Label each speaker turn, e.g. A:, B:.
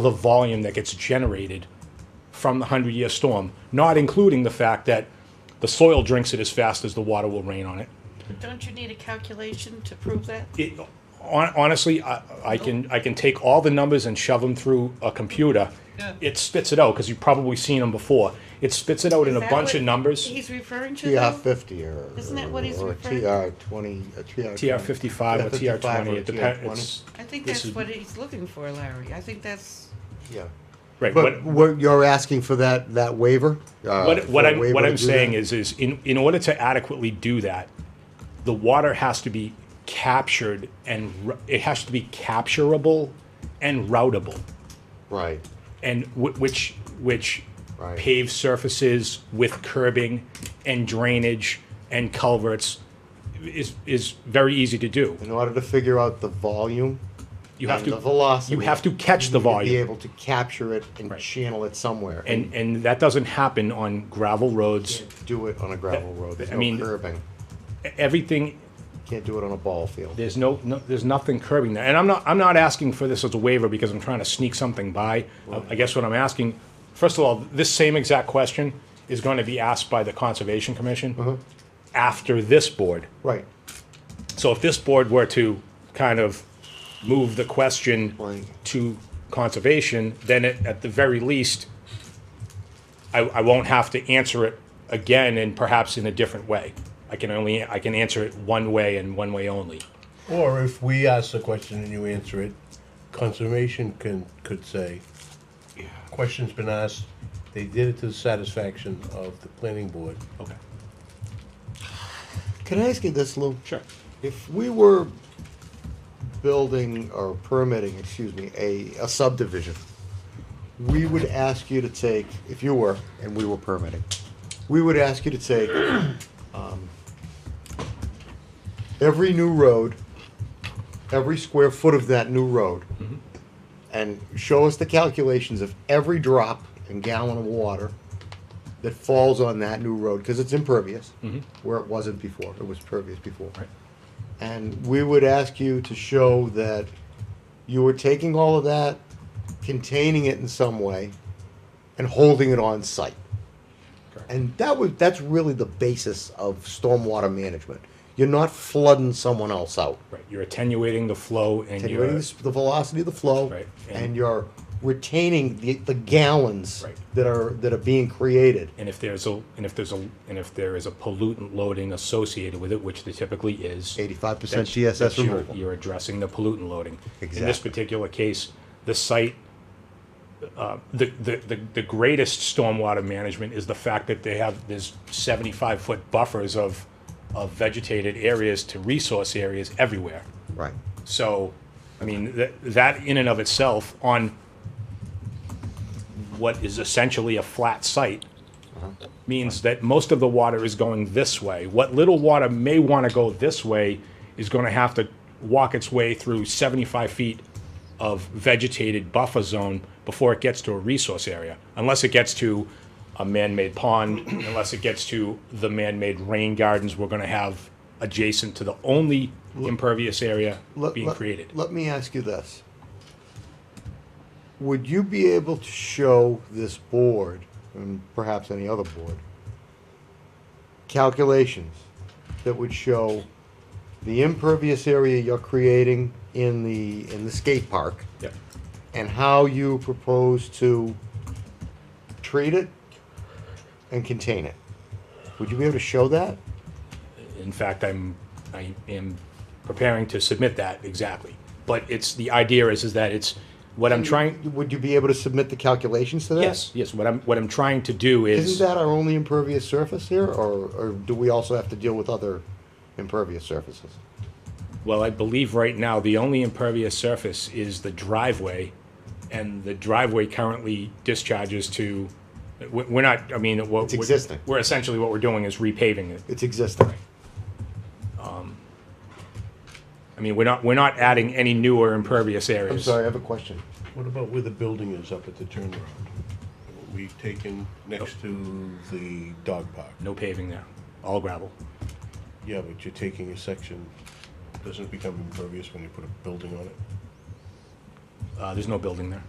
A: the volume that gets generated from the 100 year storm, not including the fact that the soil drinks it as fast as the water will rain on it.
B: Don't you need a calculation to prove that?
A: it hon- honestly, I, I can I can take all the numbers and shove them through a computer.
B: Yeah.
A: It spits it out because you've probably seen them before. It spits it out in
B: Is
A: a
B: that
A: bunch
B: what
A: of numbers.
B: He's referring to
C: TR
B: though?
C: fifty or.
B: Isn't that what he's
C: or
B: referring
C: TR twenty, a TR.
A: TR fifty-five or TR twenty. It depends.
B: I think
A: This
B: that's
A: is-
B: what he's looking for, Larry. I think that's,
C: Yeah.
A: Right.
C: But
A: What,
C: what, you're asking for that, that waiver? uh,
A: what,
C: for
A: what
C: a
A: I'm
C: waiver
A: what
C: to
A: I'm
C: do
A: saying
C: that?
A: is is in in order to adequately do that, the water has to be captured and ru- it has to be capturable and routable.
C: Right,
A: and wh- which which
C: Right.
A: paved surfaces with curbing and drainage and culverts is is very easy to do.
C: in order to figure out the volume.
A: You have
C: and
A: to
C: The velocity.
A: You have to catch the
C: you need to Be
A: volume,
C: able to capture it and
A: Right.
C: channel it somewhere.
A: and and that doesn't happen on gravel roads.
C: Can't Do it on a gravel road, there's
A: I mean-
C: no curbing,
A: Everything
C: can't do it on a ball field.
A: there's no, no there's nothing curbing that. And I'm not I'm not asking for this as a waiver because I'm trying to sneak something by. I- I guess what I'm asking, first of all, this same exact question is going to be asked by the conservation commission after this board.
C: Right,
A: So if this board were to kind of move the question
C: Blank.
A: to conservation, then it, at the very least, I, I won't have to answer it again and perhaps in a different way. I can only, I can answer it one way and one way only.
D: Or if we ask the question and you answer it, conservation can, could say, question's been asked, they did it to the satisfaction of the planning board.
A: Okay.
C: can I ask you this, Lou?
A: Sure.
C: If we were building or permitting, excuse me, a, a subdivision, we would ask you to take, if you were, and we were permitting, we would ask you to take, um, every new road, every square foot of that new road, and show us the calculations of every drop and gallon of water that falls on that new road, because it's impervious, where it wasn't before, it was pervious before.
A: Mm-hmm. Right.
C: And we would ask you to show that you were taking all of that, containing it in some way, and holding it on site.
A: Correct.
C: And that was, that's really the basis of stormwater management. You're not flooding someone else out.
A: Right, you're attenuating the flow and
C: Attenuating
A: you're,
C: the s- the velocity of the flow.
A: Right, and-
C: And you're retaining the, the gallons
A: Right.
C: that are, that are being created.
A: and if there's a, and if there's a, and if there is a pollutant loading associated with it, which there typically is.
C: Eighty-five percent
A: that's-
C: GSS
A: that's your-
C: removal.
A: You're addressing the pollutant loading. In this
C: Exactly.
A: particular case, the site, uh, the, the, the the greatest stormwater management is the fact that they have, there's seventy-five foot buffers of, of vegetated areas to resource areas everywhere.
C: Right.
A: So, I mean, that, that in and of itself on what is essentially a flat site means that most of the water is going this way. What little water may want to go this way is going to have to walk its way through 75 feet of vegetated buffer zone before it gets to a resource area, unless it gets to a man-made pond, unless it gets to the man-made rain gardens we're going to have adjacent to the only impervious area
C: Let-
A: being
C: let-
A: created.
C: Let me ask you this. Would you be able to show this board, and perhaps any other board, calculations that would show the impervious area you're creating in the, in the skate park?
A: Yep.
C: and how you propose to treat it and contain it. Would you be able to show that?
A: In fact, I'm, I am preparing to submit that exactly. But it's, the idea is, is that it's, what I'm trying,
C: Would you be able to submit the calculations to that?
A: yes, yes, what I'm, what I'm trying to do
C: Isn't
A: is,
C: that our only impervious surface here, or, or do we also have to deal with other impervious surfaces?
A: well, I believe right now, the only impervious surface is the driveway, and the driveway currently discharges to, we- we're not, I mean, what.
C: It's existing.
A: We're essentially, what we're doing is repaving it.
C: It's existing.
A: I mean, we're not, we're not adding any newer impervious areas.
C: I'm sorry, I have a question.
D: What about where the building is up at the turnaround? We've taken next to the dog park.
A: No paving there, all gravel.
D: Yeah, but you're taking a section, doesn't it become impervious when you put a building on it?
A: Uh, there's no building there.